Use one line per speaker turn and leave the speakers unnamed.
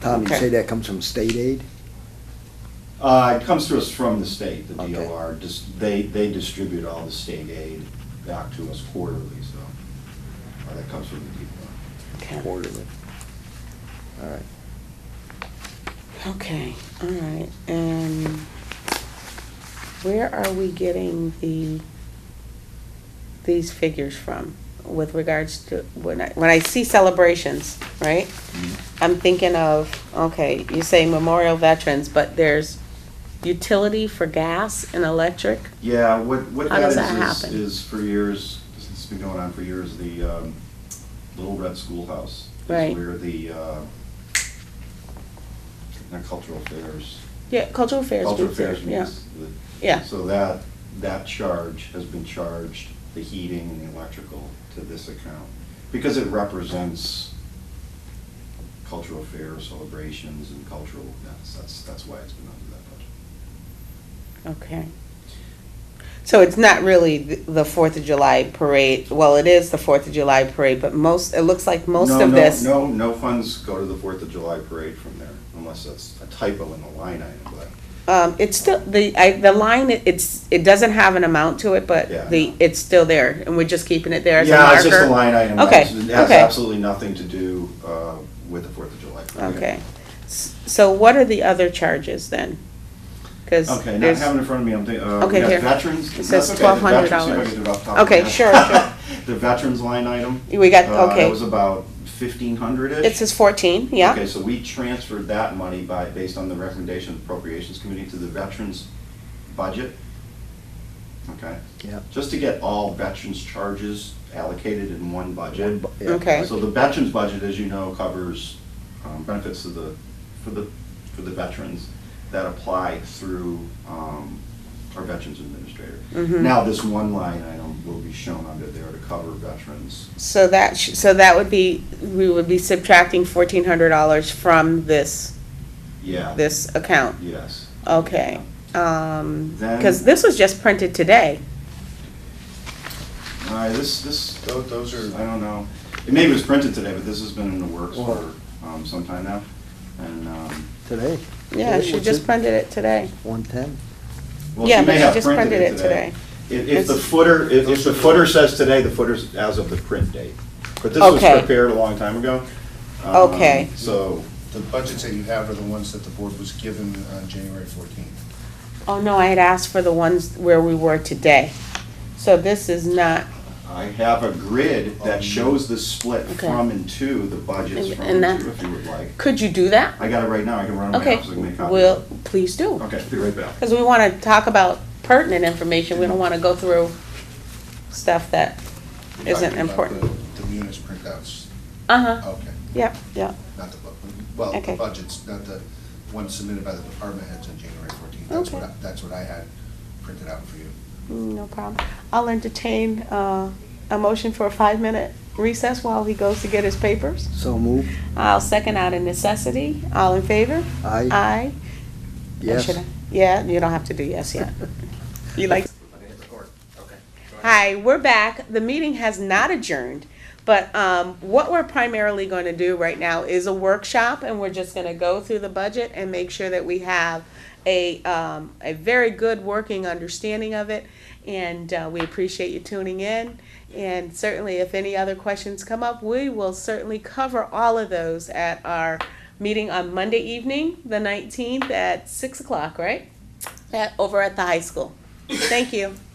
Tom, you
Okay.
say that comes from state aid?
Uh, it comes to us from the state, the
Okay.
DOR, just, they, they distribute all the state aid back to us quarterly, so, uh, that comes from the DOR.
Okay.
Quarterly. All right.
Okay, all right, and where are we getting the, these figures from with regards to, when I, when I see celebrations, right? I'm thinking of, okay, you say memorial veterans, but there's utility for gas and electric?
Yeah, what, what that
How does
is,
that
is-
happen?
is for years, it's been going on for years, the um, Little Red Schoolhouse.
Right.
Is where the, uh, not cultural fairs.
Yeah, cultural affairs.
Cultural
group there,
fairs
yeah.
means the-
Yeah.
So that, that charge has been charged, the heating and the electrical, to this account. Because it represents cultural fairs, celebrations, and cultural events. That's, that's why it's been under that budget.
Okay. So it's not really th- the Fourth of July parade, well, it is the Fourth of July parade, but most, it looks like most
No,
of
no,
this.
No, no funds go to the Fourth of July parade from there, unless that's a typo in the line item, but,
Um, it's still, the, I, the line, it- it's, it doesn't have an amount to it,
Yeah,
but
I
the,
know.
it's still there, and we're just keeping it there as a marker.
Yeah, it's just a line item.
Okay,
It's- It has
okay.
absolutely nothing to do, uh, with the Fourth of July parade.
Okay. S- So what are the other charges then? Cause
Okay, not
there's-
having it in front of me, I'm thinking, uh,
Okay,
we
here.
have veterans.
It says
That's okay, the veterans, see if I
$1,200.
can do it off the top of my
Okay,
head.
sure,
The veterans line item.
We got-
uh,
okay.
It was about fifteen hundred-ish.
it says fourteen, yeah?
Okay, so we transferred that money by, based on the recommendation of appropriations committee to the veterans budget. Okay?
Yep.
Just to get all veterans charges allocated in one budget.
One bu- yeah.
Okay,
So the veterans budget, as you know, covers um, benefits to the, for the, for the veterans that apply through um, our veterans administrator.
Mhm.
Now, this one line item will be shown under there to cover veterans.
so that, sh- so that would be, we would be subtracting fourteen hundred dollars from this,
Yeah,
this account.
yes.
Okay, um,
Then-
because this was just printed today.
All right, this, this,
Tho- Those are,
I don't know. It maybe was printed today, but this has been in the works
Well-
for um, some time now. And, um,
Today,
Yeah,
Today,
she
what's
just
it?
printed it today.
one-ten?
well,
Yeah,
you
but
may
she
have
just
printed it today. If, if the footer, if, if the footer says today, the footer's as of the print date. But this was
Okay.
prepared a long time ago. Um,
Okay.
So,
the budgets that you have are the ones that the board was given on January 14th.
Oh, no, I had asked for the ones where we were today. So this is not,
I have a grid that shows the split
Okay.
from and to, the budgets
And-
from
and
and to,
that-
if you would like.
could you do that?
I got it right now, I can run it my
Okay,
office, I can make copies.
well, please do.
Okay, be right back.
Because we want to talk about pertinent information. We don't want to go through stuff that
You're
isn't
talking about
important.
The the munis printouts,
Uh-huh,
okay,
yep, yep,
not the, bu- well,
Okay.
the budgets, not the ones submitted by the department heads on January 14th. That's what,
Okay.
I- that's what I had printed out for you.
Mm, no problem. I'll entertain uh, a motion for a five-minute recess while he goes to get his papers.
So move,
I'll second out of necessity. All in favor?
aye?
Aye. Or
Yes.
should I- Yeah, you don't have to do yes yet. You like, hi, we're back. The meeting has not adjourned. But um, what we're primarily going to do right now is a workshop and we're just going to go through the budget and make sure that we have a, um, a very good working understanding of it. And uh, we appreciate you tuning in. And certainly if any other questions come up, we will certainly cover all of those at our meeting on Monday evening, the nineteenth at six o'clock, right? At, over at the high school. Thank you.